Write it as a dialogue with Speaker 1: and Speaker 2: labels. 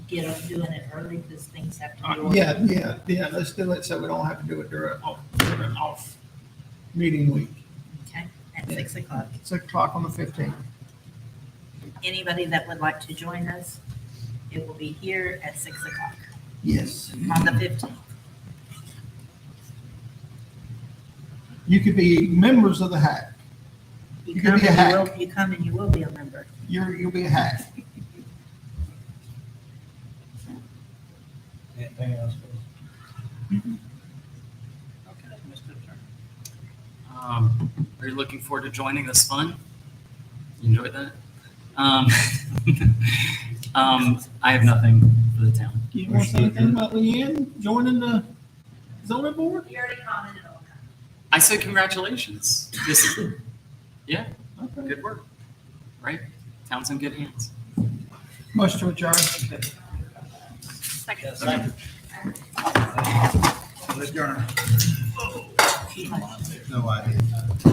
Speaker 1: get up doing it early because things have to be
Speaker 2: Uh,
Speaker 1: ordered.
Speaker 2: Yeah, yeah, yeah, let's do it so we don't have to do it during, off- during off meeting week.
Speaker 1: Okay, at six o'clock.
Speaker 2: Six o'clock on the fifteenth.
Speaker 1: Anybody that would like to join us, it will be here at six o'clock
Speaker 2: Yes.
Speaker 1: on the fifteenth.
Speaker 2: You could be members of the hack.
Speaker 1: You
Speaker 2: You can
Speaker 1: come
Speaker 2: be a
Speaker 1: and you
Speaker 2: hack.
Speaker 1: will, you come and you will be a member.
Speaker 2: You're, you'll be a hack.
Speaker 3: Anything else?
Speaker 4: Okay, Mr. Attorney.
Speaker 3: Um, Are you looking forward to joining this fun? You enjoyed that? Um, um, I have nothing for the town.
Speaker 2: You want to say anything about Leanne joining the zoning board?
Speaker 1: You already commented on that.
Speaker 3: I say congratulations. This is
Speaker 2: Okay.
Speaker 3: good work, right? Town's in good hands.
Speaker 2: Motion to adjourn.
Speaker 4: Yes, thank you. Let's adjourn. No idea.